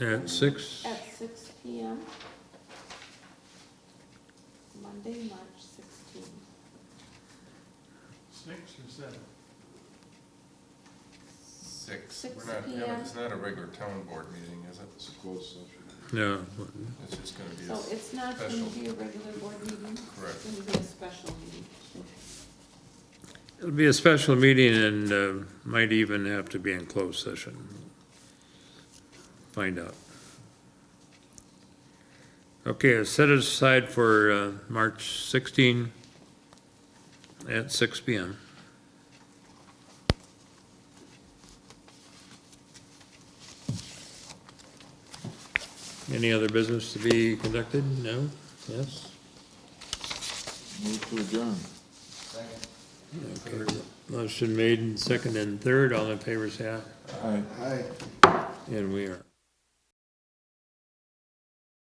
at six, at six P M. Monday, March sixteenth. Six or seven? Six. Six We're not having- PM. It's not a regular town board meeting, is it? It's a closed session. no, It's just gonna be, So a- it's not gonna Special. be a regular board meeting, correct. it's gonna be a special meeting. it'll be a special meeting and uh, might even have to be in closed session. Find out. Okay, I set it aside for uh, March 16 at six PM. Any other business to be conducted? No? Yes? Move to adjourn. Okay. Motion made and second and third, all in favor say aye. Aye. Aye. And we are.